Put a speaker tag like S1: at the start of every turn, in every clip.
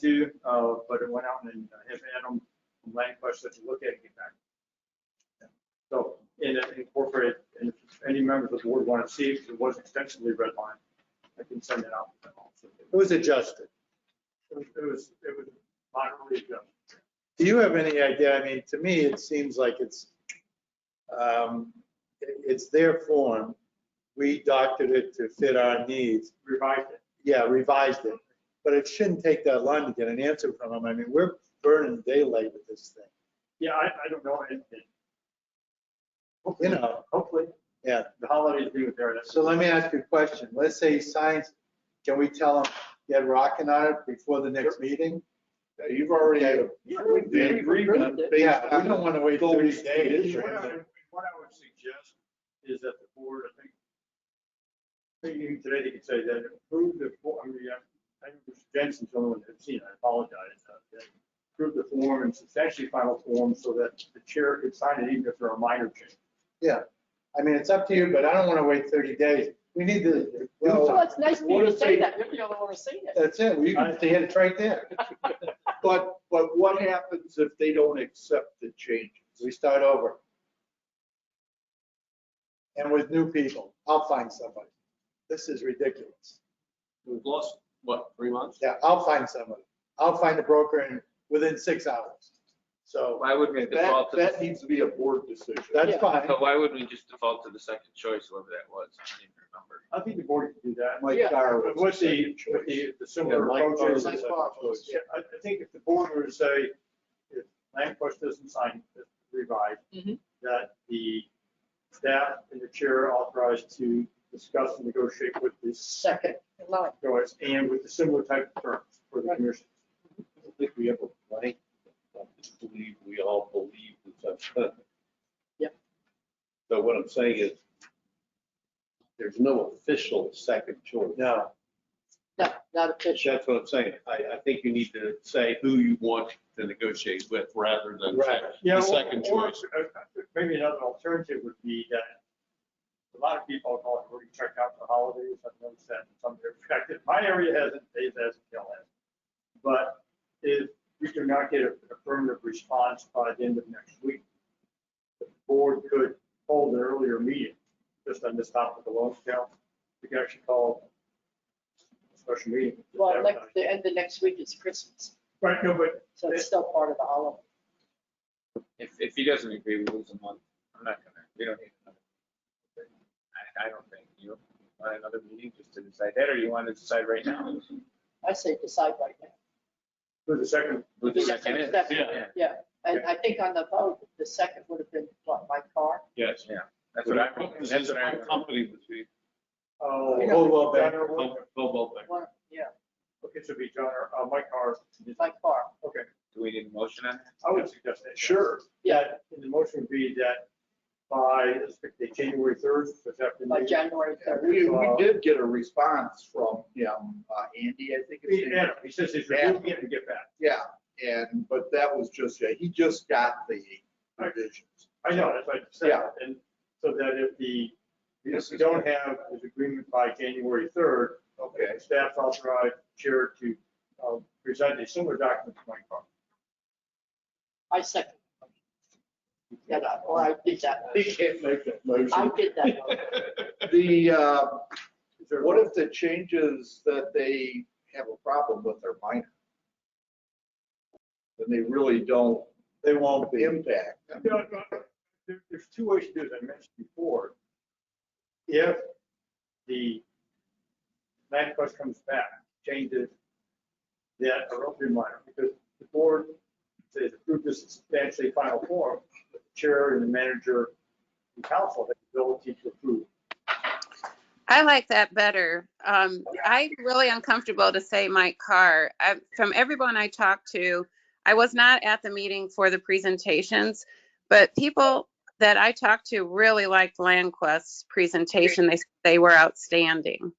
S1: to, uh, but it went out and have Adam from Lancaster to look at it and get back. So, and it incorporated, and if any members of the board want to see, if it was extensively redlined, I can send it out. to them also.
S2: It was adjusted.
S1: It was, it was it was moderately adjusted.
S2: Do you have any idea? I mean, to me, it seems like it's, um, it- it's their form. We doctored it to fit our needs.
S1: revised it.
S2: Yeah, revised it. But it shouldn't take that long to get an answer from them. I mean, we're burning daylight with this thing,
S1: Yeah, I, I don't know. and- and
S2: you know?
S1: Hopefully,
S2: Yeah.
S1: the holidays being there, that's.
S2: So let me ask you a question. Let's say he signs, can we tell him, get rocking on it before the next meeting?
S3: You've already had a.
S1: Yeah, we- we approved it.
S2: Yeah, we don't want to wait
S3: Go
S2: 30
S3: with
S2: days.
S3: it.
S1: What I would- what I would suggest is that the board, I think, thinking today, they could say that approve the, for- I mean, I- I think Mr. Jensen's the only one that's seen, it. I apologize. uh, that Approve the form and substantially final form so that the chair could sign it even if there are minor changes.
S2: I mean, it's up to you, but I don't want to wait 30 days. We need to do
S4: Well,
S2: something.
S4: it's nice of you to say that. You're the only one who's seen it.
S2: That's it. Well, you can see it right there.
S3: But, but what happens if they don't accept the changes?
S2: We start over. And with new people, I'll find somebody. This is ridiculous.
S5: We've lost, what, three months?
S2: Yeah, I'll find somebody. I'll find a broker in, within six hours. So
S5: Why wouldn't we
S3: That,
S5: default to,
S3: that
S5: the-
S3: needs to be a board decision.
S2: that's
S4: Yeah.
S2: fine.
S5: but why wouldn't we just default to the second choice, whoever that was? I don't even remember.
S1: I think the board could do that.
S3: Mike
S4: Yeah.
S3: Carr
S1: But
S3: was
S1: uh, With the,
S3: second choice.
S1: with the uh, the similar
S3: Yeah, Mike Carr was
S1: approaches.
S3: the second choice.
S1: Yeah, I I think if the board were to say, if Lankoff doesn't sign the revise,
S4: Mhm.
S1: that the staff and the chair are authorized to discuss and negotiate with this
S4: Second, no,
S1: choice and with the similar type of terms for the commission.
S6: I think we have a blank, I just believe we all believe that that's.
S4: Yep.
S6: So what I'm saying is, there's no official second choice.
S2: No,
S4: no, not official.
S6: That's what I'm saying. I, I think you need to say who you want to negotiate with rather than.
S2: Right.
S1: Yeah,
S6: The second
S1: or- or,
S6: choice.
S1: uh, Maybe another alternative would be that a lot of people are calling, we're checked out for the holidays. I've noticed that in some perspective. My area hasn't, Dave hasn't, Dale hasn't. But if we do not get a affirmative response by the end of next week, the board could hold an earlier meeting just on this topic alone. Now, we could actually call a special meeting.
S4: Well, next, the end of next week is Christmas,
S1: Right, no, but
S4: so it's still part of the holiday.
S5: If, if he doesn't agree, we lose a month. I'm not gonna, we don't need another. I, I don't think you want another meeting just to decide that, or you want to decide right now?
S4: I say decide right now.
S1: for the second,
S5: Who the second is?
S4: That's-
S5: Yeah,
S4: Yeah, and I think on the vote, the second would have been, what, my car?
S6: Yes.
S5: that's what I, remember.
S6: This
S5: that's
S6: is
S5: what I.
S6: my
S5: remember.
S6: company with me.
S1: oh.
S2: Yeah. Hold on, Ben.
S6: Bob- Bob Obeck.
S4: One, yeah,
S1: Okay, so it'd be John, or uh, Mike Carr.
S4: my car.
S1: Okay,
S5: Do we need a motion on that?
S1: I would suggest that.
S3: Sure.
S1: Yeah, and the motion would be that by, let's pick the January third, which after.
S4: By January
S3: And
S4: 3rd.
S3: We,
S1: uh,
S3: we did get a response from him, uh, Andy, I think. his name
S1: Yeah, he says he's reviewing it and get back.
S3: Yeah, and, but that was just, yeah, he just got the revisions.
S1: I know, that's what I said.
S3: Yeah.
S1: And so that if the, if
S3: This
S1: we
S3: is-
S1: don't have this agreement by January third,
S3: Okay,
S1: staff authorized chair to um, present a similar document to Mike Carr.
S4: I second. Yeah, no, well, I did that.
S3: he can't make that
S4: I
S3: motion.
S4: did that.
S3: The, uh,
S1: Is there-
S3: what if the changes that they have a problem with are minor? Then they really don't
S2: they won't be.
S3: impact. them.
S1: You know, there- There's two ways to do it, I mentioned before. If the land trust comes back, changes that are relatively minor, because the board says approve this substantially final form, the chair and the manager and council have the ability to approve.
S7: I like that better. Um, I'm really uncomfortable to say my car. I, from everyone I talked to, I was not at the meeting for the presentations, but people that I talked to really liked LandQuest's presentation. They they were outstanding.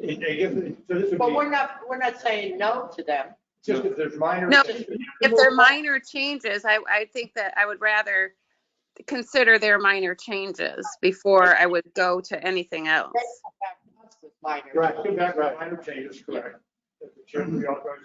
S1: And they give- So this would
S4: But we're
S1: be,
S4: not, we're not saying no to them.
S1: just if there's minor.
S7: No, If they're minor changes, I, I think that I would rather consider their minor changes before I would go to anything else.
S4: That's about us with minor.
S2: Right.
S1: Come back with minor changes, correct. If The chair will be authorized